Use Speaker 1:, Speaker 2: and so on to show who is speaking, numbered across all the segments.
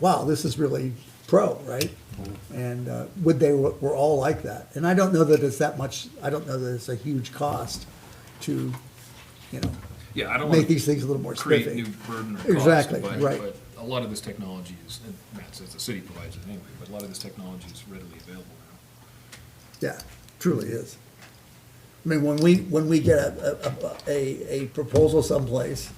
Speaker 1: wow, this is really pro, right? And uh, would they were, were all like that? And I don't know that it's that much. I don't know that it's a huge cost to, you know,
Speaker 2: Yeah, I don't
Speaker 1: make
Speaker 2: want to
Speaker 1: these things a little more
Speaker 2: create
Speaker 1: specific.
Speaker 2: new burden or cost.
Speaker 1: Exactly,
Speaker 2: but-
Speaker 1: right.
Speaker 2: But a lot of this technology is, and Matt says the city provides it anyway, but a lot of this technology is readily available now.
Speaker 1: Yeah, truly is. I mean, when we, when we get a, a, a, a proposal someplace,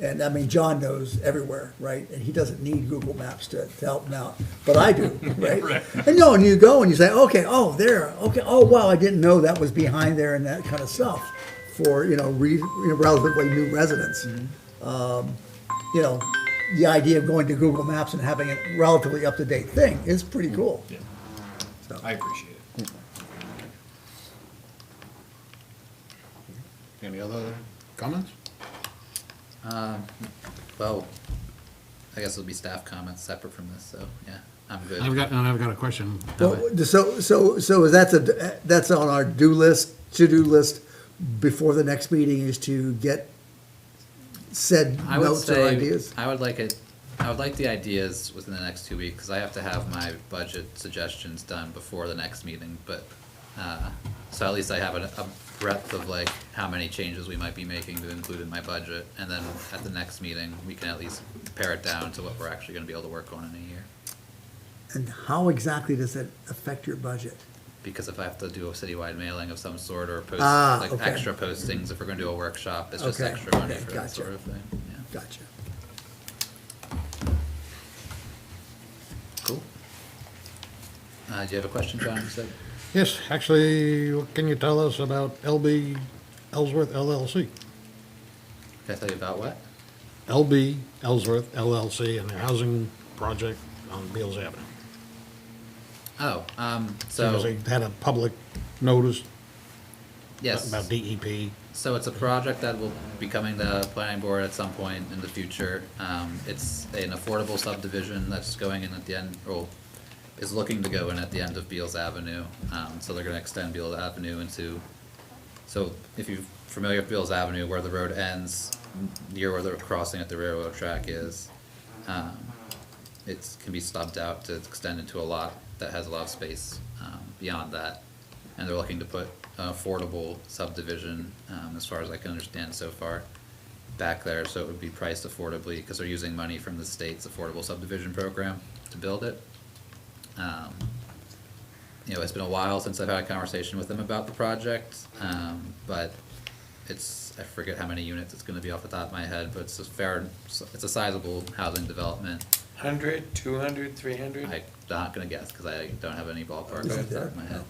Speaker 1: and I mean, John knows everywhere, right? And he doesn't need Google Maps to, to help him out, but I do, right? And no, and you go and you say, okay, oh, there, okay, oh, wow, I didn't know that was behind there and that kind of stuff for, you know, re, you know, relatively new residents. Um, you know, the idea of going to Google Maps and having a relatively up-to-date thing is pretty cool.
Speaker 2: Yeah,
Speaker 1: So.
Speaker 2: I appreciate it.
Speaker 3: Any other comments?
Speaker 4: Well, I guess it'll be staff comments separate from this, so, yeah, I'm good.
Speaker 3: I've got, and I've got a question.
Speaker 1: Well, so, so, so is that's a, that's on our do list, to-do list before the next meeting is to get said
Speaker 4: I would
Speaker 1: notes or
Speaker 4: say
Speaker 1: ideas?
Speaker 4: I would like it, I would like the ideas within the next two weeks, because I have to have my budget suggestions done before the next meeting, but, uh, so at least I have a, a breadth of like how many changes we might be making to include in my budget, and then at the next meeting, we can at least pare it down to what we're actually gonna be able to work on in a year.
Speaker 1: And how exactly does it affect your budget?
Speaker 4: because if I have to do a citywide mailing of some sort or post,
Speaker 1: Ah,
Speaker 4: like
Speaker 1: okay.
Speaker 4: extra postings, if we're gonna do a workshop, it's just
Speaker 1: Okay,
Speaker 4: extra money
Speaker 1: okay,
Speaker 4: for
Speaker 1: gotcha.
Speaker 4: that sort of thing, yeah.
Speaker 1: Gotcha.
Speaker 4: Cool. Uh, do you have a question, John, you said?
Speaker 3: Yes, actually, what can you tell us about LB Ellsworth LLC?
Speaker 4: Can I tell you about what?
Speaker 3: LB Ellsworth LLC and their housing project on Beals Avenue.
Speaker 4: Oh, um,
Speaker 3: Because
Speaker 4: so,
Speaker 3: they had a public notice
Speaker 4: yes.
Speaker 3: about E DEP.
Speaker 4: So it's a project that will be coming to planning board at some point in the future. Um, it's an affordable subdivision that's going in at the end, or is looking to go in at the end of Beals Avenue. Um, so they're gonna extend Beals Avenue into, so if you're familiar with Beals Avenue, where the road ends, n- near where the crossing at the railroad track is, um, it's, can be stubbed out to extend into a lot that has a lot of space, um, beyond that. And they're looking to put an affordable subdivision, um, as far as I can understand so far, back there, so it would be priced affordably, cause they're using money from the state's affordable subdivision program to build it. Um, you know, it's been a while since I've had a conversation with them about the project, um, but it's, I forget how many units it's gonna be off the top of my head, but it's a fair, it's a sizable housing development.
Speaker 5: 100, 200, 300?
Speaker 4: I'm not gonna guess, cause I don't have any ballpark
Speaker 1: Is
Speaker 4: off
Speaker 1: it
Speaker 4: the
Speaker 1: there?
Speaker 4: top of my head.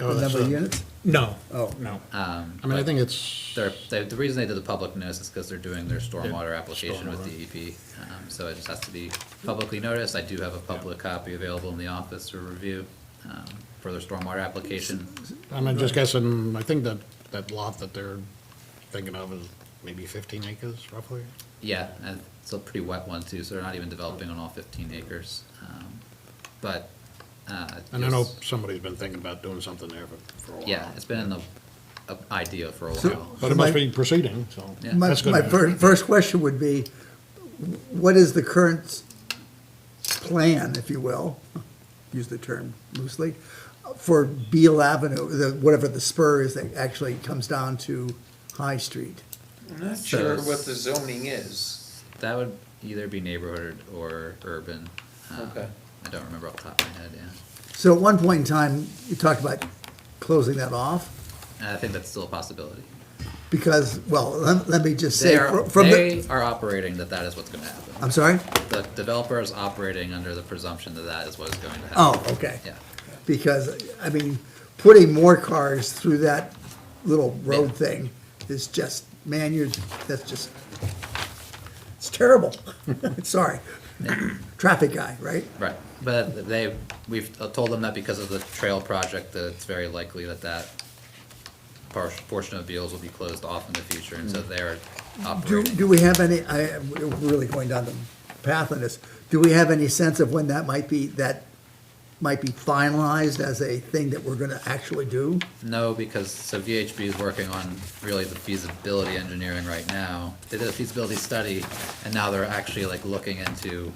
Speaker 3: Oh,
Speaker 1: The
Speaker 3: that's
Speaker 1: number of
Speaker 3: a-
Speaker 1: units?
Speaker 3: No,
Speaker 1: Oh.
Speaker 3: no.
Speaker 4: Um,
Speaker 3: I mean, I
Speaker 4: but-
Speaker 3: think it's,
Speaker 4: They're, they, the reason they did the public notice is because they're doing their stormwater application with
Speaker 3: Stormwater.
Speaker 4: DEP. Um, so it just has to be publicly noticed. I do have a public copy available in the office for review, um, for their stormwater application.
Speaker 3: I'm just guessing, I think that, that lot that they're thinking of is maybe 15 acres roughly.
Speaker 4: Yeah, and it's a pretty wet one too, so they're not even developing on all fifteen acres. Um, But, uh.
Speaker 3: And I know
Speaker 4: just-
Speaker 3: somebody's been thinking about doing something there for, for a while.
Speaker 4: Yeah, it's been in the, uh, idea for a
Speaker 1: So-
Speaker 4: while.
Speaker 3: But it must be proceeding, so.
Speaker 4: Yeah.
Speaker 1: My,
Speaker 3: that's good
Speaker 1: my
Speaker 3: news.
Speaker 1: first, first question would be, what is the current plan, if you will, use the term loosely, for Beal Avenue, the, whatever the spur is that actually comes down to High Street?
Speaker 5: I'm not
Speaker 4: So-
Speaker 5: sure what the zoning is.
Speaker 4: That would either be neighborhood or urban. Um,
Speaker 5: Okay.
Speaker 4: I don't remember off the top of my head, yeah.
Speaker 1: So at one point in time, you talked about closing that off
Speaker 4: And I think that's still a possibility.
Speaker 1: because, well, let, let me just say
Speaker 4: They are,
Speaker 1: fr- from
Speaker 4: they
Speaker 1: the,
Speaker 4: are operating that that is what's gonna happen.
Speaker 1: I'm sorry?
Speaker 4: The developer is operating under the presumption that that is what is going to
Speaker 1: Oh,
Speaker 4: happen.
Speaker 1: okay.
Speaker 4: Yeah,
Speaker 1: Because, I mean, putting more cars through that little road
Speaker 4: Yeah.
Speaker 1: thing is just, man, you're, that's just, it's terrible. Sorry. Traffic guy, right?
Speaker 4: right. But they, we've told them that because of the trail project, that it's very likely that that par- portion of Beals will be closed off in the future, and so they're
Speaker 1: Do,
Speaker 4: operating.
Speaker 1: do we have any, I, we're really going down the path on this. Do we have any sense of when that might be, that might be finalized as a thing that we're gonna actually do?
Speaker 4: No, because, so VHB is working on really the feasibility engineering right now. They did a feasibility study, and now they're actually like looking into